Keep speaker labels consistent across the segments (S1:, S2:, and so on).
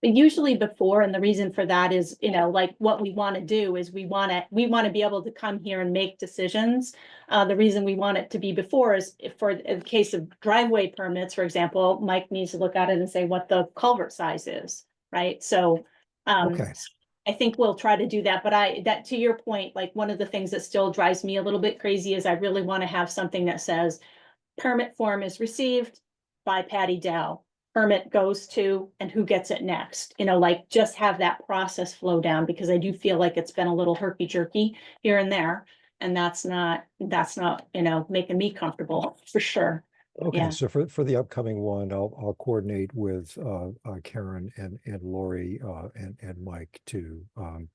S1: But usually before, and the reason for that is, you know, like what we want to do is we want to, we want to be able to come here and make decisions. Uh, the reason we want it to be before is if for, in the case of driveway permits, for example, Mike needs to look at it and say what the culvert size is, right? So, um,
S2: Okay.
S1: I think we'll try to do that, but I, that, to your point, like, one of the things that still drives me a little bit crazy is I really want to have something that says permit form is received by Patty Dow, permit goes to, and who gets it next, you know, like, just have that process flow down, because I do feel like it's been a little herky-jerky here and there, and that's not, that's not, you know, making me comfortable, for sure. yeah.
S2: Okay, so for, for the upcoming one, I'll, I'll coordinate with, uh, uh, Karen and, and Lori, uh, and, and Mike to, um,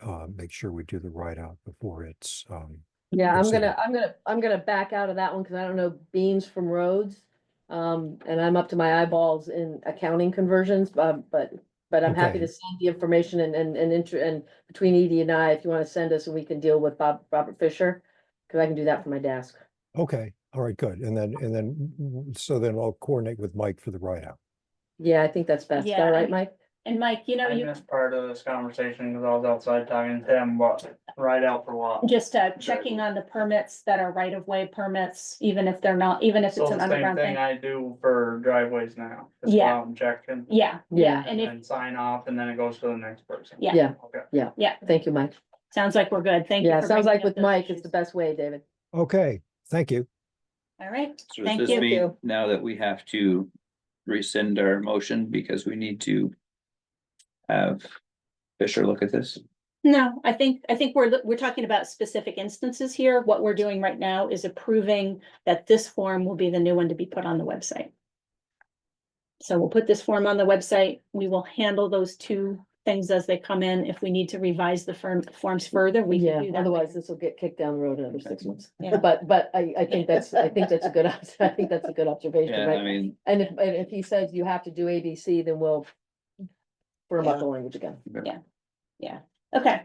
S2: uh, make sure we do the write-out before it's, um,
S3: Yeah, I'm
S2: Proceed.
S3: gonna, I'm gonna, I'm gonna back out of that one because I don't know beans from roads. Um, and I'm up to my eyeballs in accounting conversions, but, but, but I'm happy
S2: Okay.
S3: to send the information and, and, and inter, and between Edie and I, if you want to send us and we can deal with Bob, Robert Fisher, because I can do that from my desk.
S2: okay, all right, good. And then, and then, w- so then I'll coordinate with Mike for the write-out.
S3: Yeah, I think that's best. Is that
S1: Yeah,
S3: all
S1: and-
S3: right, Mike?
S1: And Mike, you know,
S4: I
S1: you
S4: missed part of this conversation because I was outside talking to him, what, right out for what?
S1: just, uh, checking on the permits that are right-of-way permits, even if they're not, even if
S4: So
S1: it's an
S4: the same
S1: underground
S4: thing
S1: thing.
S4: I do for driveways now. just go
S1: Yeah.
S4: out and check and
S1: Yeah, yeah, and if,
S4: and sign off and then it goes to the next person.
S1: Yeah.
S3: Yeah,
S4: Okay.
S3: thank you, Mike.
S1: sosounds like we're good, thank you.
S3: Yeah,
S1: for
S3: sounds
S1: bringing
S3: like
S1: up
S3: with
S1: those
S3: Mike, it's
S1: issues.
S3: the best way, David.
S2: Okay, thank you.
S1: All right,
S5: So does
S1: thank
S5: this
S1: you.
S5: mean now that we have to rescind our motion because we need to have Fisher look at this?
S1: No, I think, I think we're, we're talking about specific instances here. What we're doing right now is approving that this form will be the new one to be put on the website. So we'll put this form on the website. We will handle those two things as they come in. If we need to revise the firm, forms further, we
S3: Yeah,
S1: can do that.
S3: otherwise this will get kicked down the road another six months.
S1: Yeah.
S3: But, but I, I think that's, I think that's a good, I think that's a good observation,
S5: Yeah,
S3: right?
S5: I mean,
S3: And if, and if he says you have to do ABC, then we'll firm up the language again.
S1: Okay,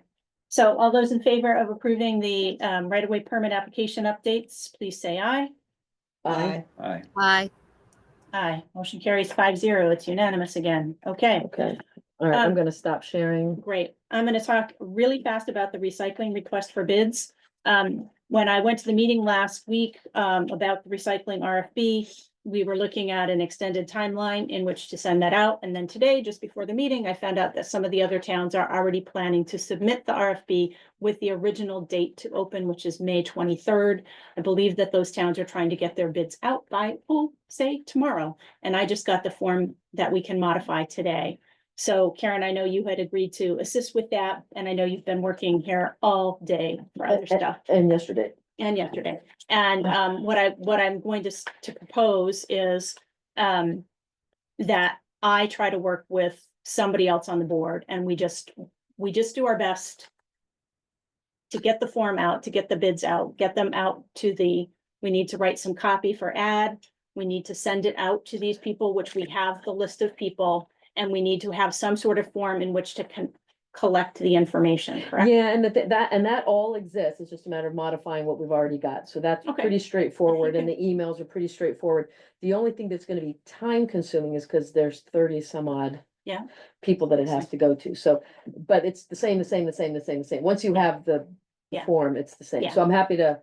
S1: so all those in favor of approving the um, right-of-way permit application updates, please say aye.
S3: Aye.
S5: I,
S6: Aye.
S1: Aye, motion carries five zero. It's unanimous again. Okay.
S3: Okay, all right,
S1: Um,
S3: I'm gonna stop sharing.
S1: Great. I'm gonna talk really fast about the recycling request for bids. Um, when I went to the meeting last week, um, about the recycling RFB, we were looking at an extended timeline in which to send that out. And then today, just before the meeting, I found out that some of the other towns are already planning to submit the RFB with the original date to open, which is May twenty-third. I believe that those towns are trying to get their bids out by, oh, say tomorrow. And I just got the form that we can modify today. So Karen, I know you had agreed to assist with that, and I know you've been working here all day for other stuff
S3: And yesterday.
S1: and yesterday. And um, what I, what I'm going to, s- to propose is um, that I try to work with somebody else on the board and we just, we just do our best to get the form out, to get the bids out, get them out to the, we need to write some copy for ad. We need to send it out to these people, which we have the list of people, and we need to have some sort of form in which to con- collect the information, correct?
S3: Yeah, and that, that, and that all exists. It's just a matter of modifying what we've already got. So that's
S1: Okay.
S3: pretty straightforward and
S1: Okay.
S3: the emails are pretty straightforward. The only thing that's gonna be time consuming is because there's thirty some odd.
S1: Yeah.
S3: People that it has to go to. So, but it's the same, the same, the same, the same, the same. Once you have the the
S1: Yeah.
S3: form, it's the same.
S1: Yeah.
S3: So I'm happy to,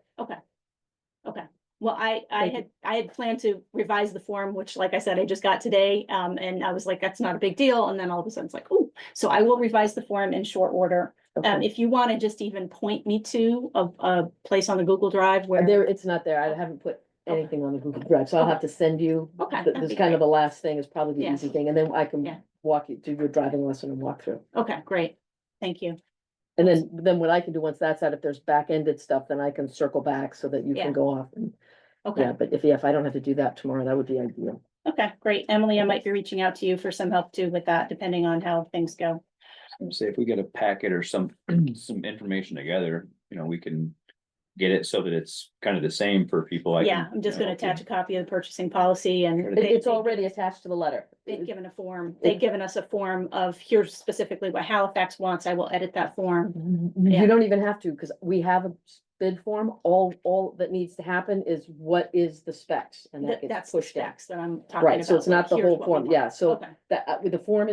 S1: Well, I, I
S3: Thank you.
S1: had, I had planned to revise the form, which like I said, I just got today, um, and I was like, that's not a big deal, and then all of a sudden it's like, oh, so I will revise the form in short order. Um,
S3: okay.
S1: if you want to just even point me to a, a place on the Google Drive where,
S3: there, it's not there. I haven't put
S1: Okay.
S3: anything on the Google Drive, so I'll have to send you.
S1: Okay,
S3: th-
S1: that'd
S3: This
S1: be
S3: is kind of
S1: great.
S3: the last thing is probably the
S1: Yeah.
S3: easy thing, and then I
S1: Yeah.
S3: can walk you through your driving lesson and walk through.
S1: okay, great, thank you.
S3: And then, then what I can do once that's out, if there's back-ended stuff, then I can circle back so that you
S1: Yeah.
S3: can go off. and-
S1: Okay,
S3: Yeah, but if, yeah, if I don't have to do that tomorrow, that would be ideal.
S1: okay, great. Emily, I might be reaching out to you for some help too with that, depending on how things go.
S5: would say if we get a packet or some, some information together, you know, we can get it so that it's kind of the same for
S3: Oh,
S5: people. I can,
S1: Yeah, I'm just
S5: you know,
S1: gonna attach a copy of the purchasing policy and.
S5: It-
S3: It-
S1: they-
S3: It's
S1: they-
S3: already attached to the letter.
S1: They've given a form, they've given us a form of here's specifically what Halifax wants. I will edit that form. Yeah.
S3: You don't even have to, because we have a bid form. All, all that needs to happen is what is the specs? And that
S1: That,
S3: gets
S1: that's the
S3: pushed out.
S1: specs that I'm talking about.
S3: Right, so it's not the
S1: like, here's
S3: whole
S1: what we
S3: form.
S1: want.
S3: Yeah, so
S1: Okay.
S3: that, uh, with the form